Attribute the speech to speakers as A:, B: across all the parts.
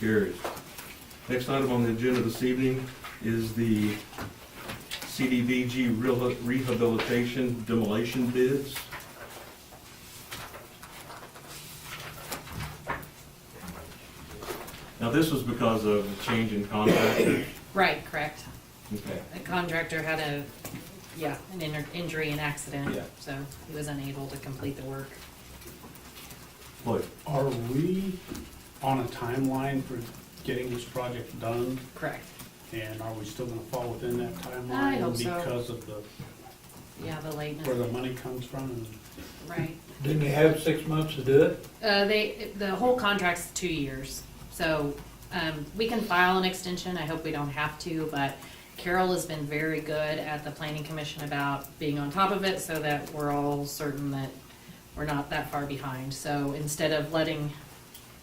A: Carries. Next item on the agenda this evening is the CDVG reha- rehabilitation demolition bids. Now, this was because of a change in contractor.
B: Right, correct.
A: Okay.
B: The contractor had a, yeah, an inter- injury and accident,
A: Yeah.
B: so he was unable to complete the work.
A: Lloyd,
C: Are we on a timeline for getting this project done?
B: Correct.
C: And are we still gonna fall within that timeline?
B: I hope so.
C: Because of the,
B: Yeah, the lateness,
C: where the money comes from and
B: right.
D: Didn't they have six months to do it?
B: Uh, they, the whole contract's two years, so, um, we can file an extension, I hope we don't have to, but Carol has been very good at the planning commission about being on top of it, so that we're all certain that we're not that far behind, so instead of letting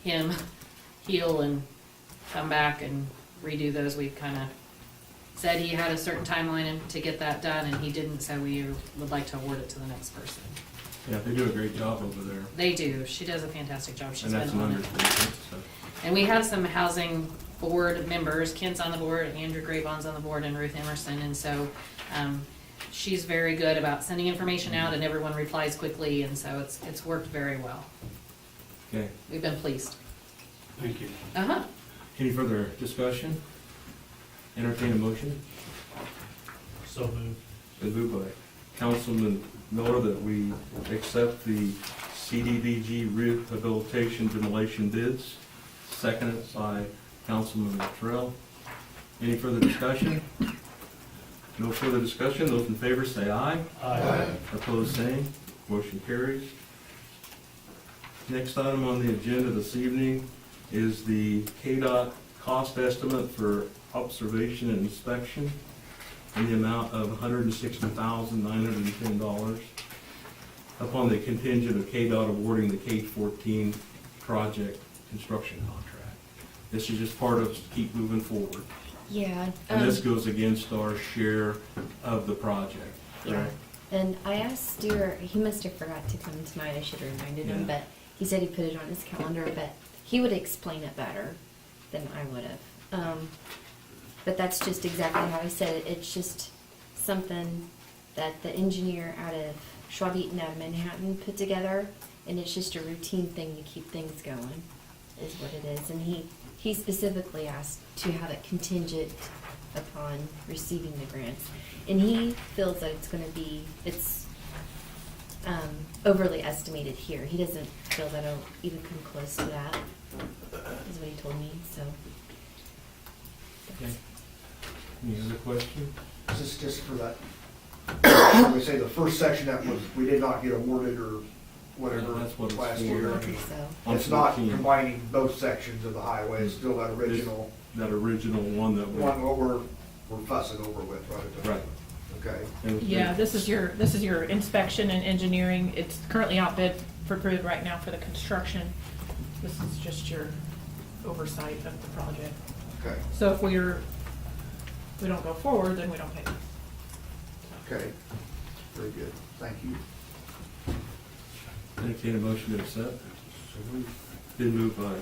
B: him heal and come back and redo those, we've kinda said he had a certain timeline and- to get that done, and he didn't, so we would like to award it to the next person.
A: yeah, they do a great job over there,
B: They do, she does a fantastic job,
A: and
B: she's been
A: that's an
B: on it.
A: understatement, so.
B: And we have some housing board members, Ken's on the board, Andrew Graybon's on the board, and Ruth Emerson, and so, um, she's very good about sending information out, and everyone replies quickly, and so it's, it's worked very well.
A: Okay,
B: We've been pleased.
C: Thank you.
B: Uh-huh.
A: any further discussion? Entertain a motion?
D: So moved.
A: Been moved by Councilman Miller that we accept the CDBG rehabilitation demolition bids, seconded by Councilman Terrell. Any further discussion? No further discussion, those in favor say aye. Opposed, same. Motion carries. Next item on the agenda this evening is the KDOT cost estimate for observation and inspection in the amount of $160,910 upon the contingent of KDOT awarding the K-14 project construction contract. This is just part of keep moving forward.
E: Yeah.
A: And
E: um,
A: this goes against our share of the project,
E: yeah.
A: correct?
E: And I asked Stuart, he must have forgot to come tonight, I should have reminded him,
A: Yeah.
E: but he said he put it on his calendar, but he would explain it better than I would have. Um, but that's just exactly how he said it, it's just something that the engineer out of Schwab Eaton out of Manhattan put together, and it's just a routine thing to keep things going, is what it is. And he, he specifically asked to have it contingent upon receiving the grants. And he feels that it's gonna be, it's um, overly estimated here. He doesn't feel that it'll even come close to that, is what he told me, so.
A: Okay. Any other question?
F: This is just for that, we say the first section that was, we did not get awarded or whatever
A: Yeah, that's what it's
F: last
A: for.
E: I
F: year.
E: think so.
A: On
F: It's not
A: 14,
F: combining both sections of the highway, it's still that original
A: That original one that
F: one
A: we.
F: what we're, we're fussing over with, right?
A: Right.
F: Okay.
A: and we-
G: Yeah, this is your, this is your inspection and engineering. It's currently outbid for bid right now for the construction. This is just your oversight of the project.
F: Okay,
G: So if we're, we don't go forward, then we don't pay.
F: okay, very good, thank you.
A: Entertain a motion to accept. Been moved by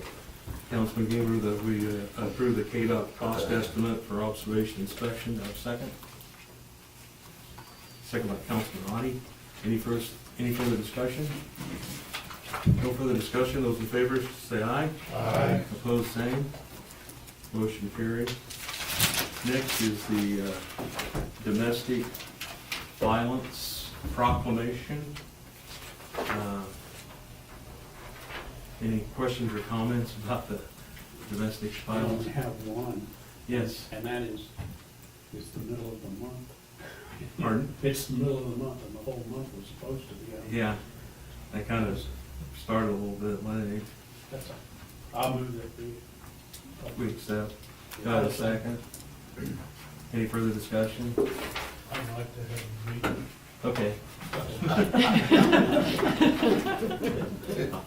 A: Councilman Gaber that we uh, approve the KDOT cost estimate for observation inspection. Do I have a second? Second by Councilman Ronnie. Any first, any further discussion? No further discussion. Those in favor say aye. Aye. Opposed, same. Motion carried. Next is the uh, domestic violence proclamation. Uh, Any questions or comments about the domestic
C: I only
A: violence?
C: have one,
A: Yes,
C: and that is, it's the middle of the month.
A: pardon?
C: It's the middle of the month, and the whole month was supposed to be out.
A: Yeah, that kind of started a little bit late.
C: That's all. I'll move that we.
A: We accept. Got a second? Any further discussion?
D: I'd like to have a meeting.
A: Okay.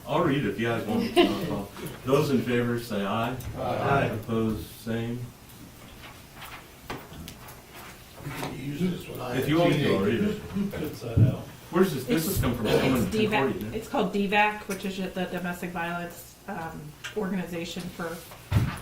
A: I'll read it if you guys want. It's not a problem. Those in favor say aye. Aye. Opposed, same.
D: Use this one.
A: If you want to, I'll read it.
D: Cuts that out.
A: Where's this, this has come from someone
G: It's
A: in Concordia,
G: DVAC,
A: didn't it?
G: it's called DVAC, which is the domestic violence um, organization for